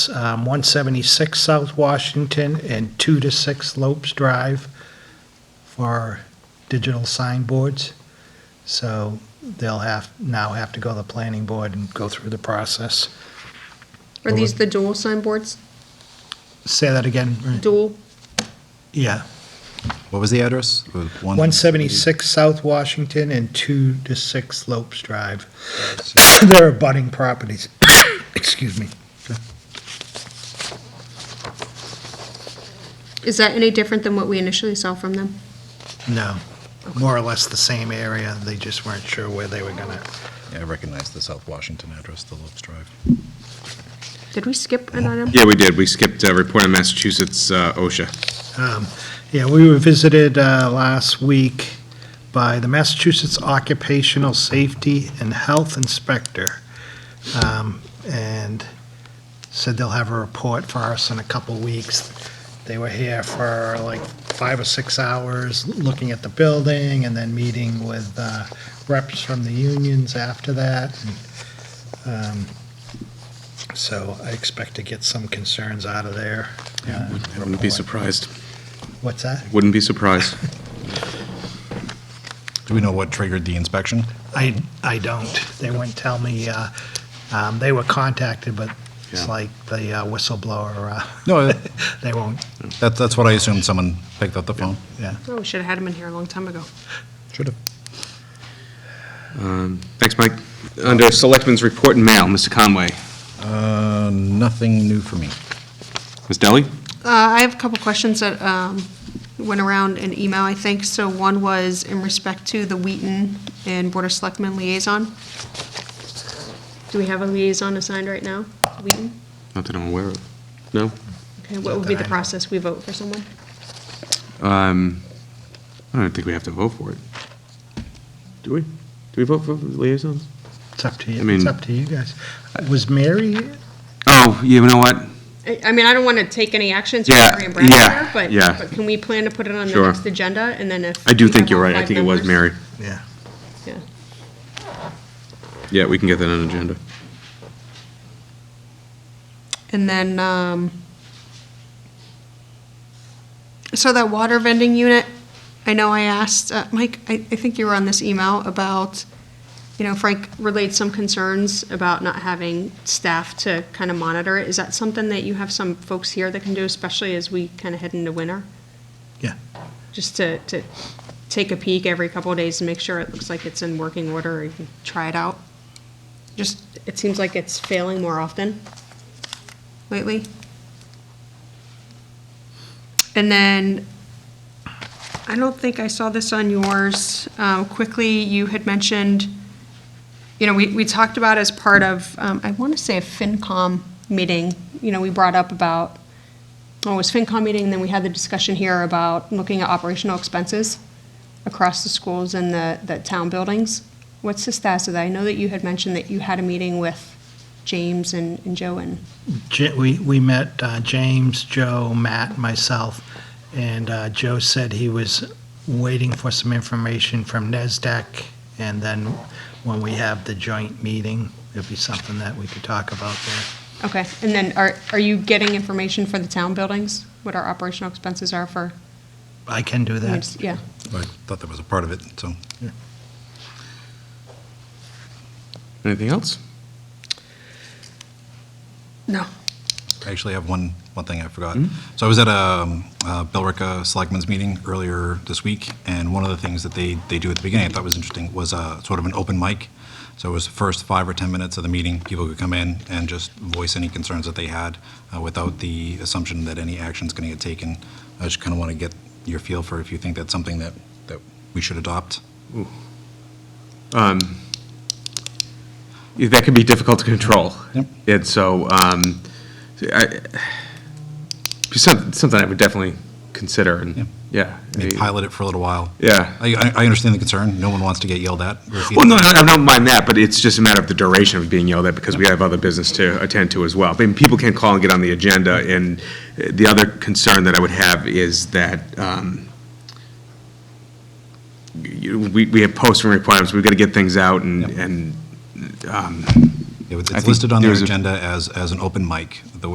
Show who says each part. Speaker 1: um, 176 South Washington and 2 to 6 Lopes Drive for digital signboards. So they'll have, now have to go to the planning board and go through the process.
Speaker 2: Are these the dual signboards?
Speaker 1: Say that again. Marie.
Speaker 2: Dual?
Speaker 1: Yeah.
Speaker 3: What was the address? It was
Speaker 1: 176 South Washington and 2 to 6 Lopes Drive. They're abutting properties. Excuse me.
Speaker 2: Is that any different than what we initially saw from them?
Speaker 1: No, more or less the same area. They just weren't sure where they were gonna.
Speaker 3: Yeah, I recognize the South Washington address, the Lopes Drive.
Speaker 2: Did we skip an item?
Speaker 4: Yeah, we did. We skipped uh, Report on Massachusetts uh, OSHA.
Speaker 1: Um, Yeah, we were visited uh, last week by the Massachusetts Occupational Safety and Health Inspector, um, and said they'll have a report for us in a couple weeks. They were here for like five or six hours, looking at the building and then meeting with uh, reps from the unions after that. And, um, So I expect to get some concerns out of there. uh,
Speaker 4: Wouldn't be surprised.
Speaker 1: What's that?
Speaker 4: Wouldn't be surprised.
Speaker 3: Do we know what triggered the inspection?
Speaker 1: I, I don't. They wouldn't tell me. uh, um, They were contacted, but it's
Speaker 4: Yeah.
Speaker 1: like the uh, whistleblower, uh,
Speaker 3: No,
Speaker 1: they won't,
Speaker 3: that, that's what I assumed, someone picked up the phone.
Speaker 1: yeah.
Speaker 2: Oh, we should have had him in here a long time ago.
Speaker 3: Should have.
Speaker 4: Um, Thanks, Mike. Under Selectmen's Report and Mail, Mr. Conway.
Speaker 3: Uh, nothing new for me.
Speaker 4: Ms. Deli?
Speaker 2: Uh, I have a couple questions that um, went around in email, I think. So one was in respect to the Wheaton and Board of Selectmen liaison. Do we have a liaison assigned right now? Wheaton?
Speaker 4: Not that I'm aware of. No?
Speaker 2: Okay, what would be
Speaker 1: Not that I
Speaker 2: the
Speaker 1: know.
Speaker 2: process? We vote for someone?
Speaker 4: Um, I don't think we have to vote for it. Do we? Do we vote for liaisons?
Speaker 1: It's up to
Speaker 4: I
Speaker 1: you,
Speaker 4: mean-
Speaker 1: it's up to you guys. Was Mary,
Speaker 4: Oh, you know what?
Speaker 2: I I mean, I don't want to take any actions for
Speaker 4: Yeah,
Speaker 2: Mary and Brad
Speaker 4: yeah,
Speaker 2: here, but,
Speaker 4: yeah.
Speaker 2: but can we plan to put it on the
Speaker 4: Sure.
Speaker 2: next agenda, and then if.
Speaker 4: I do
Speaker 2: we
Speaker 4: think
Speaker 2: have
Speaker 4: you're
Speaker 2: all
Speaker 4: right. I
Speaker 2: five
Speaker 4: think it was
Speaker 2: members-
Speaker 4: Mary.
Speaker 1: yeah,
Speaker 2: Yeah.
Speaker 4: Yeah, we can get that on agenda.
Speaker 2: And then, um, so that water vending unit, I know I asked, uh, Mike, I, I think you were on this email about, you know, Frank relayed some concerns about not having staff to kind of monitor it. Is that something that you have some folks here that can do, especially as we kind of head into winter?
Speaker 1: yeah.
Speaker 2: just to, to take a peek every couple of days and make sure it looks like it's in working order or even try it out. Just, it seems like it's failing more often lately. And then, I don't think I saw this on yours. Um, quickly, you had mentioned, you know, we, we talked about as part of, um, I want to say a FinCom meeting, you know, we brought up about well, it was FinCom meeting, and then we had the discussion here about looking at operational expenses across the schools and the, the town buildings. What's the status of that? I know that you had mentioned that you had a meeting with James and, and Joe and,
Speaker 1: Ja- We, we met uh, James, Joe, Matt, myself, and uh, Joe said he was waiting for some information from NESDAQ, and then when we have the joint meeting, it'd be something that we could talk about there.
Speaker 2: okay. And then are, are you getting information for the town buildings? What our operational expenses are for?
Speaker 1: I can do that.
Speaker 2: Yeah.
Speaker 3: I thought that was a part of it, so.
Speaker 4: Anything else?
Speaker 2: No.
Speaker 3: I actually have one, one thing I forgot.
Speaker 4: Mm-hmm.
Speaker 3: So I was at a um, uh, Billerica Selectmen's meeting earlier this week, and one of the things that they, they do at the beginning I thought was interesting was uh, sort of an open mic. So it was the first five or 10 minutes of the meeting, people could come in and just voice any concerns that they had uh, without the assumption that any action's going to get taken. I just kind of want to get your feel for if you think that's something that, that we should adopt.
Speaker 4: That can be difficult to control.
Speaker 3: Yep.
Speaker 4: And so, um, I, some- something I would definitely consider, and,
Speaker 3: Yep.
Speaker 4: yeah.
Speaker 3: I mean, pilot it for a little while.
Speaker 4: Yeah.
Speaker 3: I, I- I understand the concern. No one wants to get yelled at.
Speaker 4: Well, no, I I don't mind that, but it's just a matter of the duration of being yelled at, because we have other business to attend to as well. I mean, people can call and get on the agenda, and uh, the other concern that I would have is that, um, you- we, we have posting requirements, we've got to get things out, and,
Speaker 3: Yep.
Speaker 4: and
Speaker 3: It was-
Speaker 4: I
Speaker 3: It's
Speaker 4: think
Speaker 3: listed on their
Speaker 4: there's a-
Speaker 3: agenda as, as an open mic, the